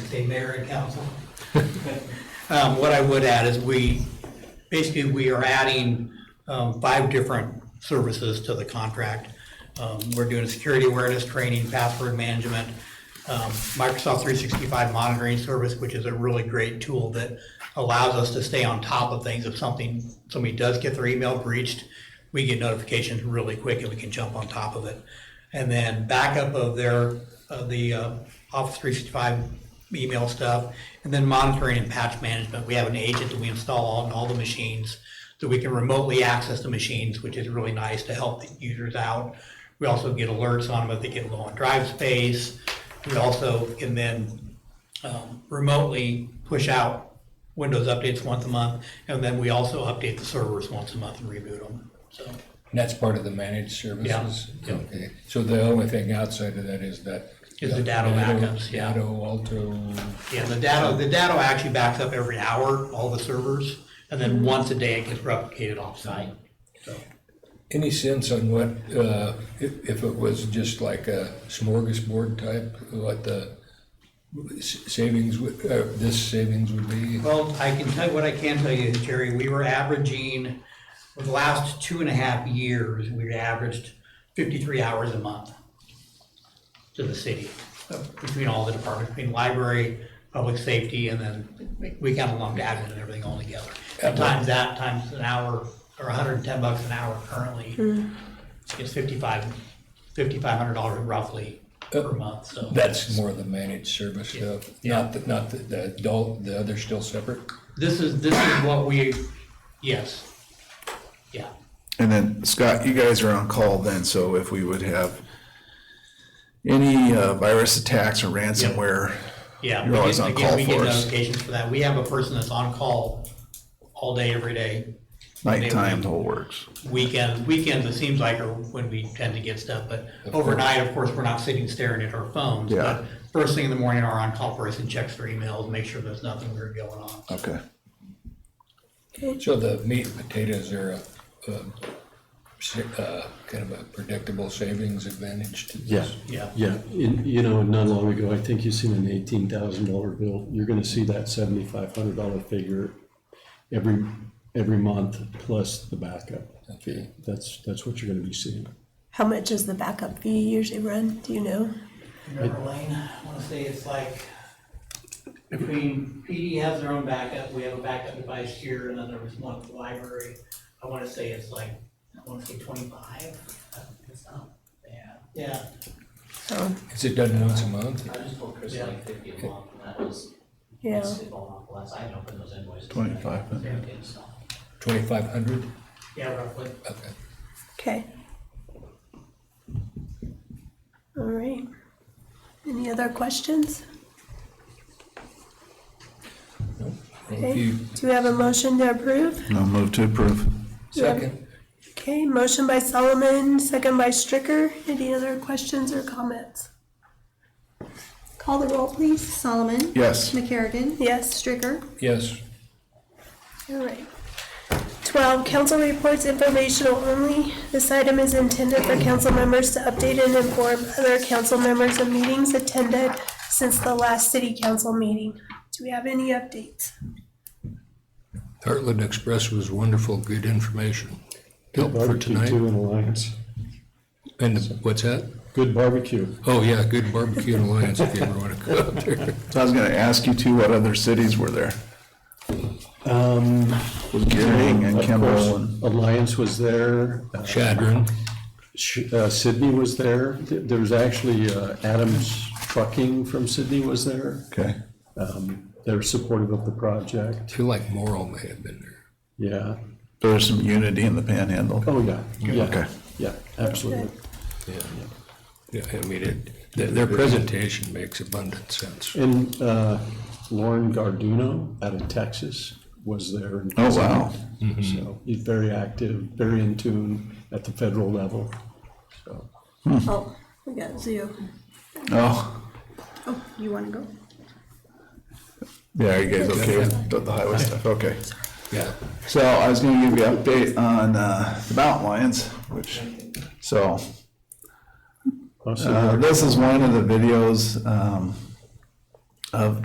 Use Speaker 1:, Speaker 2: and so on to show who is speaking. Speaker 1: Wednesday, Mayor and Council. Um, What I would add is we, basically, we are adding um, five different services to the contract. Um, We're doing security awareness training, password management, um, Microsoft 365 monitoring service, which is a really great tool that allows us to stay on top of things. If something, somebody does get their email breached, we get notifications really quick and we can jump on top of it. And then backup of their, of the uh, Office 365 email stuff, and then monitoring and patch management. We have an agent that we install on all the machines, so we can remotely access the machines, which is really nice to help the users out. We also get alerts on them if they get low on drive space. We also can then um, remotely push out Windows updates once a month, and then we also update the servers once a month and reboot them, so.
Speaker 2: And that's part of the managed services?
Speaker 1: Yeah, yeah.
Speaker 2: Okay, so the only thing outside of that is that?
Speaker 1: Is the data backups, yeah.
Speaker 2: Datto, Alto,
Speaker 1: Yeah, the data, the data actually backs up every hour, all the servers, and then once a day it gets replicated offsite. So,
Speaker 2: any sense on what, uh, if if it was just like a smorgasbord type, what the s- savings, would- uh, this savings would be?
Speaker 1: Well, I can tell you, what I can tell you, is, Jerry, we were averaging, for the last two and a half years, we averaged fifty-three hours a month to the city, uh, between all the departments, between library, public safety, and then we kind of lumped admin and everything all together. And times that, times an hour, or hundred and ten bucks an hour currently, it's fifty-five, fifty-five hundred dollars roughly per month, so.
Speaker 2: That's more of the managed service stuff,
Speaker 1: Yeah.
Speaker 2: not, the- not the- the adult, the other's still separate?
Speaker 1: This is, this is what we, yes, yeah.
Speaker 3: And then Scott, you guys are on call then, so if we would have any uh, virus attacks or ransomware,
Speaker 1: Yeah.
Speaker 3: You're always
Speaker 1: we
Speaker 3: on
Speaker 1: get- again,
Speaker 3: call
Speaker 1: we get
Speaker 3: for us.
Speaker 1: Notifications for that. We have a person that's on call all day, every day.
Speaker 3: nighttime, the whole works.
Speaker 1: Weekends, weekends, it seems like are when we tend to get stuff, but overnight, of course, we're not sitting staring at our phones.
Speaker 3: Yeah.
Speaker 1: But First thing in the morning, our on-call person checks their emails, make sure there's nothing weird going on.
Speaker 3: Okay.
Speaker 2: So the meat and potatoes are a, a, sa- uh, kind of a predictable savings advantage to
Speaker 4: Yeah.
Speaker 2: this?
Speaker 1: Yeah.
Speaker 4: Yeah, and, you know, not long ago, I think you seen an eighteen thousand dollar bill, you're gonna see that seventy-five hundred dollar figure every, every month, plus the backup fee, that's, that's what you're gonna be seeing.
Speaker 5: How much does the backup fee usually run? Do you know?
Speaker 1: Remember Lane, I wanna say it's like, between, PD has their own backup, we have a backup device here, and then there was one at the library. I wanna say it's like, I wanna say twenty-five, it's not bad. Yeah,
Speaker 5: So,
Speaker 2: Is it done once a month?
Speaker 6: I just told Chris
Speaker 1: Yeah.
Speaker 6: like fifty a month, and that was,
Speaker 5: yeah.
Speaker 6: that's it all off last, I didn't open those invoices.
Speaker 3: 25, huh?
Speaker 6: Yeah, okay, so.
Speaker 2: Twenty-five hundred?
Speaker 1: yeah, roughly.
Speaker 2: Okay.
Speaker 5: Okay. All right. Any other questions?
Speaker 2: Well, if
Speaker 5: Okay.
Speaker 2: you,
Speaker 5: Do we have a motion to approve?
Speaker 3: No move to approve.
Speaker 2: second,
Speaker 5: Okay, motion by Solomon, second by Stricker. Any other questions or comments?
Speaker 7: Call the roll, please. Solomon?
Speaker 3: Yes.
Speaker 7: McCarrigan?
Speaker 5: Yes,
Speaker 7: Stricker?
Speaker 2: yes,
Speaker 5: all right. Twelve, council reports informational only. This item is intended for council members to update and inform other council members of meetings attended since the last city council meeting. Do we have any updates?
Speaker 2: Heartland Express was wonderful, good information. Help for
Speaker 4: Barbecue
Speaker 2: tonight,
Speaker 4: too in Alliance,
Speaker 2: and the- what's that?
Speaker 4: good barbecue.
Speaker 2: Oh, yeah, good barbecue in Alliance if you ever wanna go up there.
Speaker 3: So I was gonna ask you too, what other cities were there?
Speaker 4: Um,
Speaker 3: Was Gearing and
Speaker 4: of
Speaker 3: Kimball
Speaker 4: course,
Speaker 3: and
Speaker 4: Alliance was there,
Speaker 2: Shadron,
Speaker 4: Sh- uh, Sydney was there, Th- there was actually, uh, Adams Trucking from Sydney was there.
Speaker 3: okay,
Speaker 4: Um, They're supportive of the project,
Speaker 2: feel like Morrow may have been there.
Speaker 4: yeah.
Speaker 3: there was some unity in the Panhandle.
Speaker 4: Oh, yeah,
Speaker 3: Okay.
Speaker 4: yeah, yeah, absolutely.
Speaker 2: Yeah. Yeah, I mean, it, their, their presentation makes abundant sense.
Speaker 4: And uh, Lauren Garduno out of Texas was there. and
Speaker 3: Oh, wow.
Speaker 4: presented. So he's very active, very in tune at the federal level. So
Speaker 7: Oh, we got Zio.
Speaker 3: Oh,
Speaker 7: Oh, you want to go?
Speaker 3: yeah, are you guys okay with the- the highway stuff? Okay.
Speaker 2: Yeah.
Speaker 3: So I was gonna give you an update on uh, the mountain lions, which, so
Speaker 4: also
Speaker 3: Uh, this is one of the videos um, of